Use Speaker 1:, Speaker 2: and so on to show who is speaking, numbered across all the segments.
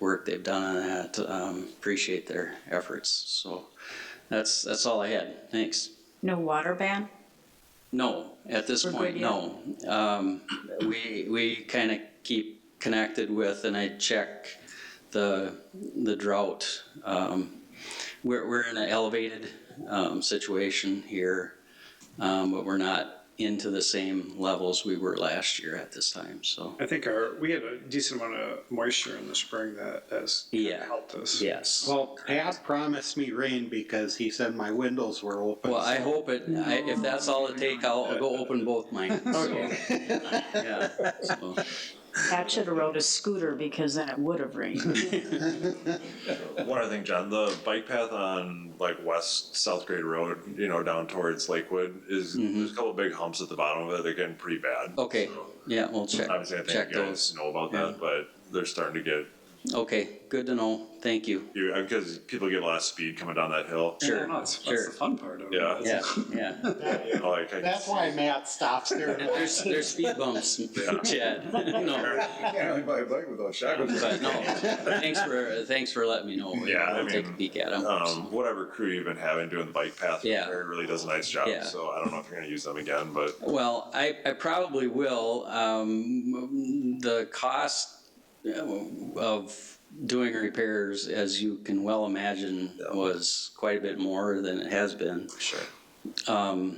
Speaker 1: work they've done on that. Um, appreciate their efforts. So that's, that's all I had. Thanks.
Speaker 2: No water ban?
Speaker 1: No, at this
Speaker 2: We're
Speaker 1: point,
Speaker 2: good
Speaker 1: no. Um, we, we kind of keep connected with, and I check the, the drought. Um, we're, we're in an elevated, um, situation here, um, but we're not into the same levels we were last year at this time, so.
Speaker 3: I think our, we had a decent amount of moisture in the spring that has
Speaker 1: Yeah.
Speaker 3: helped us.
Speaker 1: Yes.
Speaker 4: Well, Pat promised me rain because he said my windows were open.
Speaker 1: Well, I
Speaker 4: so-
Speaker 1: hope it, I, if that's all it take, I'll, I'll go open both mine. so, yeah, so.
Speaker 2: Pat should have rode a scooter because then it would have rained.
Speaker 5: One other thing, John, the bike path on like West South Grade Road, you know, down towards Lakewood is, there's a couple big humps at the bottom of it. They're getting pretty bad.
Speaker 1: Mm-hmm. Okay, yeah, we'll check,
Speaker 5: Obviously, I
Speaker 1: check
Speaker 5: think you guys
Speaker 1: those.
Speaker 5: know about that, but they're starting to get,
Speaker 1: Okay, good to know. Thank you.
Speaker 5: you, because people get a lot of speed coming down that hill.
Speaker 1: Sure,
Speaker 3: Yeah, no, that's,
Speaker 1: sure.
Speaker 3: that's the fun part of it.
Speaker 5: Yeah.
Speaker 1: Yeah, yeah.
Speaker 5: You know, Like, I-
Speaker 4: That's why Matt stops there. and
Speaker 1: There's, there's speed bumps, Chad. No,
Speaker 6: can't really buy a bike without shotguns.
Speaker 1: but no. Thanks for, thanks for letting me know.
Speaker 5: Yeah, I
Speaker 1: I'll take a
Speaker 5: mean,
Speaker 1: peek at them.
Speaker 5: um, whatever crew you've been having doing the bike path,
Speaker 1: Yeah.
Speaker 5: repair really does a nice job.
Speaker 1: Yeah.
Speaker 5: So I don't know if you're going to use them again, but
Speaker 1: Well, I, I probably will. Um, the cost uh, of doing repairs, as you can well imagine, was quite a bit more than it has been. Um,
Speaker 5: sure.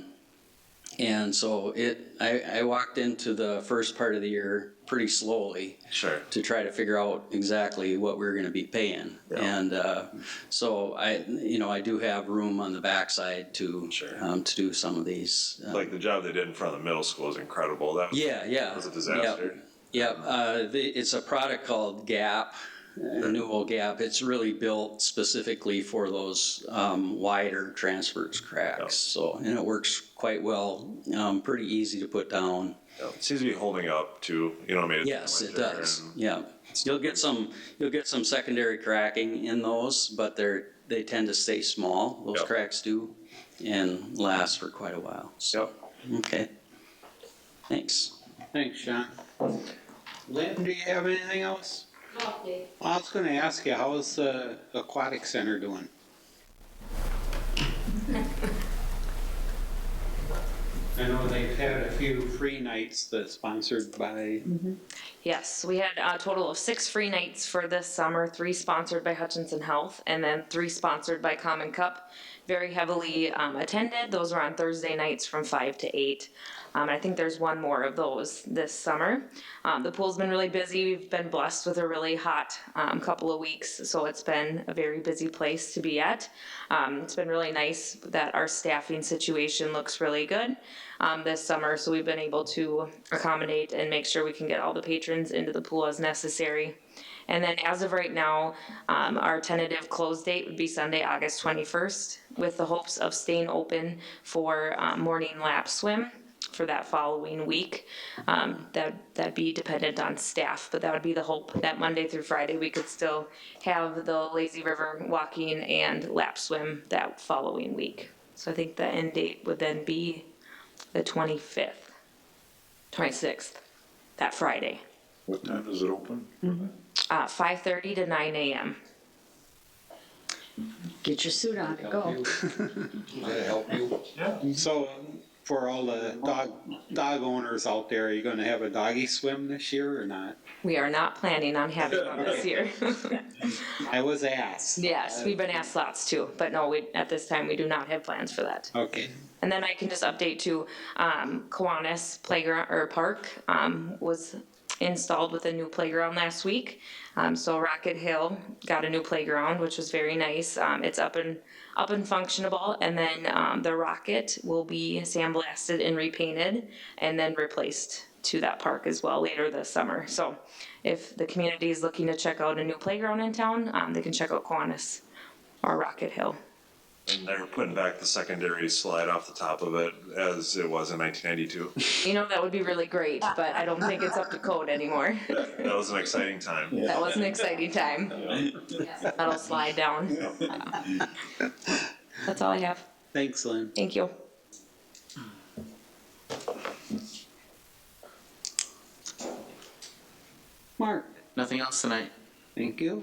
Speaker 1: And so it, I, I walked into the first part of the year pretty slowly.
Speaker 5: Sure.
Speaker 1: to try to figure out exactly what we are going to be paying. And uh, so I, you know, I do have room on the backside to
Speaker 5: Sure.
Speaker 1: um, to do some of these. Uh,
Speaker 5: Like the job they did in front of the middle school is incredible. That was,
Speaker 1: yeah, yeah,
Speaker 5: That was a disaster. Um,
Speaker 1: Yeah, uh, the, it's a product called Gap, uh, Newell Gap. It's really built specifically for those um, wider transverse cracks. So and it works quite well. Um, pretty easy to put down.
Speaker 5: It seems to be holding up too. You know what I mean? It's
Speaker 1: Yes, it
Speaker 5: winter
Speaker 1: does,
Speaker 5: and-
Speaker 1: yeah. You'll get some, you'll get some secondary cracking in those, but they're, they tend to stay small, those
Speaker 5: Yep.
Speaker 1: cracks do, and last for quite a while, so,
Speaker 5: Yep.
Speaker 1: okay. Thanks.
Speaker 4: Thanks, Sean. Lynn, do you have anything else? Well, I was gonna ask you, how's the aquatic center doing? I know they've had a few free nights that's sponsored by,
Speaker 7: Yes, we had a total of six free nights for this summer, three sponsored by Hutchinson Health, and then three sponsored by Common Cup. Very heavily um, attended. Those were on Thursday nights from 5 to 8. Um, I think there's one more of those this summer. Um, the pool's been really busy. We've been blessed with a really hot um, couple of weeks, so it's been a very busy place to be at. Um, it's been really nice that our staffing situation looks really good um, this summer, so we've been able to accommodate and make sure we can get all the patrons into the pool as necessary. And then as of right now, um, our tentative close date would be Sunday, August 21st, with the hopes of staying open for uh, morning lap swim for that following week. Um, that, that'd be dependent on staff, but that would be the hope that Monday through Friday, we could still have the lazy river walking and lap swim that following week. So I think the end date would then be the 25th, 26th, that Friday,
Speaker 6: What time is it open?
Speaker 5: Mm-hmm.
Speaker 7: uh, 5:30 to 9 a.m.
Speaker 2: Get your suit on and go.
Speaker 4: so um, for all the dog, dog owners out there, are you gonna have a doggy swim this year or not?
Speaker 7: We are not planning on having one this year.
Speaker 4: I was asked.
Speaker 7: yes, we've been asked lots too, but no, we, at this time, we do not have plans for that.
Speaker 4: Okay,
Speaker 7: And then I can just update to, um, Kiwanis Playground or Park, um, was installed with a new playground last week. Um, so Rocket Hill got a new playground, which was very nice. Um, it's up and, up and functionable. And then, um, the Rocket will be sandblasted and repainted and then replaced to that park as well later this summer. So if the community is looking to check out a new playground in town, um, they can check out Kiwanis or Rocket Hill.
Speaker 5: And they're putting back the secondary slide off the top of it as it was in 1992.
Speaker 7: You know, that would be really great, but I don't think it's up to code anymore.
Speaker 5: That was an exciting time.
Speaker 7: That was an exciting time. That'll slide down. That's all I have.
Speaker 4: thanks, Lynn.
Speaker 7: Thank you.
Speaker 4: Mark,
Speaker 8: Nothing else tonight.
Speaker 4: thank you.